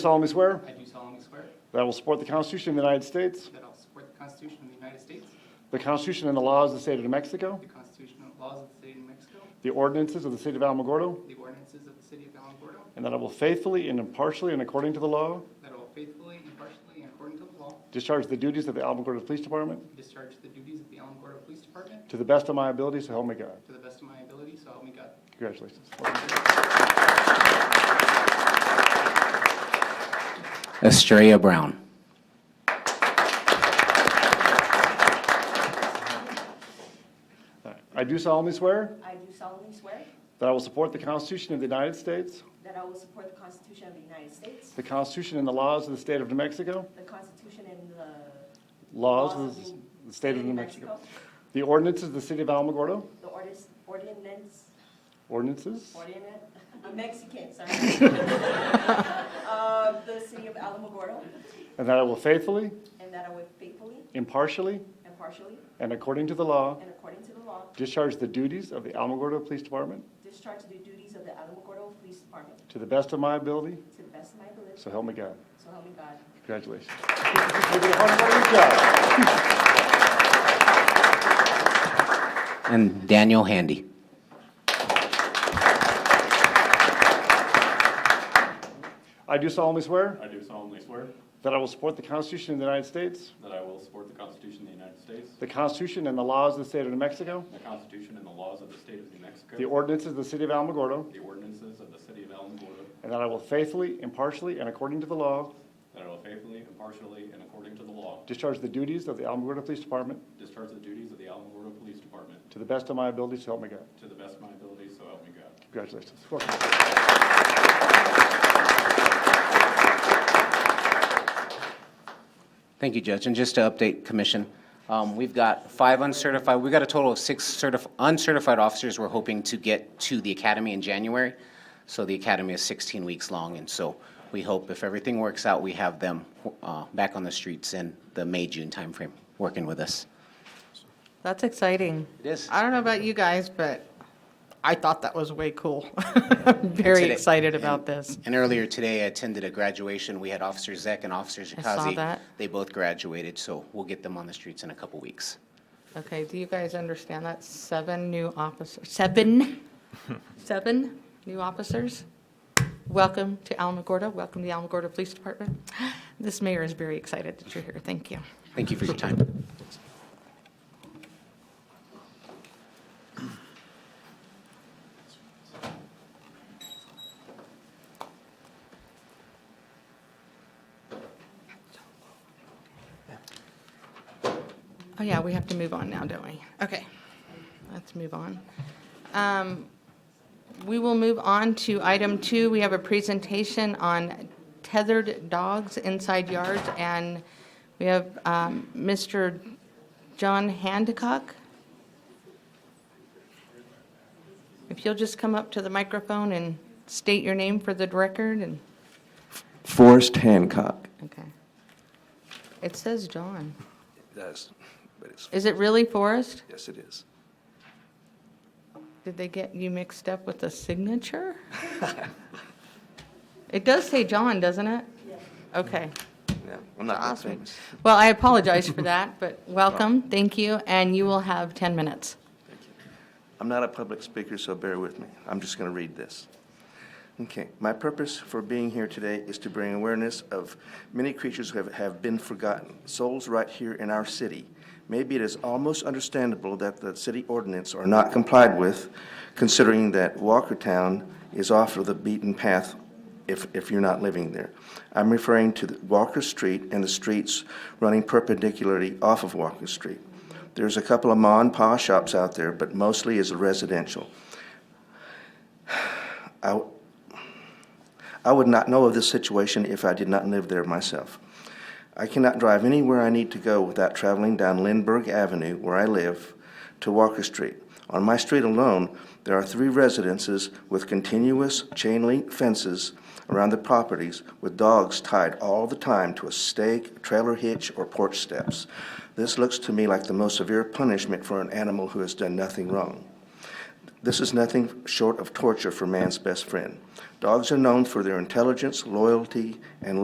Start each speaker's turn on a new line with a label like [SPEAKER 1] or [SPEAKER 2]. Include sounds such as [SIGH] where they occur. [SPEAKER 1] solemnly swear
[SPEAKER 2] I do solemnly swear
[SPEAKER 1] that I will support the Constitution of the United States,
[SPEAKER 2] that I'll support the Constitution of the United States,
[SPEAKER 1] the Constitution and the laws of the state of New Mexico,
[SPEAKER 2] the Constitution and laws of the state of New Mexico,
[SPEAKER 1] the ordinances of the city of Alamogordo,
[SPEAKER 2] the ordinances of the city of Alamogordo,
[SPEAKER 1] and that I will faithfully and impartially and according to the law
[SPEAKER 2] that I will faithfully, impartially, and according to the law,
[SPEAKER 1] discharge the duties of the Alamogordo Police Department
[SPEAKER 2] discharge the duties of the Alamogordo Police Department
[SPEAKER 1] to the best of my ability, so help me God.
[SPEAKER 2] to the best of my ability, so help me God.
[SPEAKER 1] Congratulations.
[SPEAKER 3] Estrella Brown.
[SPEAKER 1] All right. I do solemnly swear
[SPEAKER 4] I do solemnly swear
[SPEAKER 1] that I will support the Constitution of the United States,
[SPEAKER 4] that I will support the Constitution of the United States,
[SPEAKER 1] the Constitution and the laws of the state of New Mexico,
[SPEAKER 4] the Constitution and the
[SPEAKER 1] laws
[SPEAKER 4] Laws
[SPEAKER 1] of
[SPEAKER 4] of
[SPEAKER 1] the state of New Mexico, the ordinances of the city of Alamogordo,
[SPEAKER 4] the ordis- ordinance,
[SPEAKER 1] ordinances
[SPEAKER 4] ordinance, I'm Mexican,
[SPEAKER 1] [LAUGHS]
[SPEAKER 4] sorry. Of the city of Alamogordo,
[SPEAKER 1] And that I will faithfully,
[SPEAKER 4] and that I will faithfully,
[SPEAKER 1] impartially,
[SPEAKER 4] impartially,
[SPEAKER 1] and according to the law
[SPEAKER 4] and according to the law,
[SPEAKER 1] discharge the duties of the Alamogordo Police Department
[SPEAKER 4] discharge the duties of the Alamogordo Police Department
[SPEAKER 1] to the best of my ability,
[SPEAKER 4] to the best of my ability,
[SPEAKER 1] so help me God.
[SPEAKER 4] so help me God.
[SPEAKER 1] Congratulations. You did a hard working job.
[SPEAKER 3] And Daniel Handy.
[SPEAKER 1] I do solemnly swear
[SPEAKER 5] I do solemnly swear
[SPEAKER 1] that I will support the Constitution of the United States,
[SPEAKER 5] that I will support the Constitution of the United States,
[SPEAKER 1] the Constitution and the laws of the state of New Mexico,
[SPEAKER 5] the Constitution and the laws of the state of New Mexico,
[SPEAKER 1] the ordinances of the city of Alamogordo,
[SPEAKER 5] the ordinances of the city of Alamogordo,
[SPEAKER 1] and that I will faithfully, impartially, and according to the law
[SPEAKER 5] that I will faithfully, impartially, and according to the law
[SPEAKER 1] discharge the duties of the Alamogordo Police Department
[SPEAKER 5] discharge the duties of the Alamogordo Police Department
[SPEAKER 1] to the best of my ability, so help me God.
[SPEAKER 5] to the best of my ability, so help me God.
[SPEAKER 1] Congratulations. Welcome.
[SPEAKER 3] Thank you, Judge. And just to update Commission, um, we've got five uncertified, we've got a total of six certif- uncertified officers we're hoping to get to the academy in January. So the academy is 16 weeks long, and so we hope if everything works out, we have them uh, back on the streets in the May-June timeframe, working with us.
[SPEAKER 6] That's exciting.
[SPEAKER 3] It is.
[SPEAKER 6] I don't know about you guys, but I thought that was way cool. [LAUGHS] Very
[SPEAKER 3] Today-
[SPEAKER 6] excited about
[SPEAKER 3] and-
[SPEAKER 6] this.
[SPEAKER 3] And earlier today, I attended a graduation. We had Officer Zek and Officer Jakazi.
[SPEAKER 6] I saw that.
[SPEAKER 3] They both graduated, so we'll get them on the streets in a couple weeks.
[SPEAKER 6] Okay, do you guys understand that? Seven new officers, seven, [LAUGHS] seven new officers? Welcome to Alamogordo, welcome to the Alamogordo Police Department. [GASPS] This mayor is very excited that you're here, thank you.
[SPEAKER 3] Thank you for your time.
[SPEAKER 6] Oh, yeah, we have to move on now, don't we? Okay, let's move on. Um, We will move on to item two. We have a presentation on tethered dogs inside yards, and we have um, Mr. John Handicock. If you'll just come up to the microphone and state your name for the record, and,
[SPEAKER 7] Forrest Hancock.
[SPEAKER 6] okay. It says John.
[SPEAKER 7] It does, but it's,
[SPEAKER 6] Is it really Forrest?
[SPEAKER 7] yes, it is.
[SPEAKER 6] Did they get you mixed up with the signature? [LAUGHS] It does say John, doesn't it? Okay.
[SPEAKER 7] Yeah, I'm not that
[SPEAKER 6] Awesome.
[SPEAKER 7] famous.
[SPEAKER 6] Well, I apologize for that, but
[SPEAKER 7] [LAUGHS]
[SPEAKER 6] welcome, thank you, and you will have 10 minutes.
[SPEAKER 7] I'm not a public speaker, so bear with me. I'm just going to read this. Okay. My purpose for being here today is to bring awareness of many creatures who have, have been forgotten, souls right here in our city. Maybe it is almost understandable that the city ordinance are not complied with, considering that Walkertown is off of the beaten path if, if you're not living there. I'm referring to the Walker Street and the streets running perpendicularly off of Walker Street. There's a couple of ma and pa shops out there, but mostly is residential. [SIGHS] I, I would not know of this situation if I did not live there myself. I cannot drive anywhere I need to go without traveling down Lindbergh Avenue, where I live, to Walker Street. On my street alone, there are three residences with continuous chain link fences around the properties with dogs tied all the time to a stake, trailer hitch, or porch steps. This looks to me like the most severe punishment for an animal who has done nothing wrong. This is nothing short of torture for man's best friend. Dogs are known for their intelligence, loyalty, and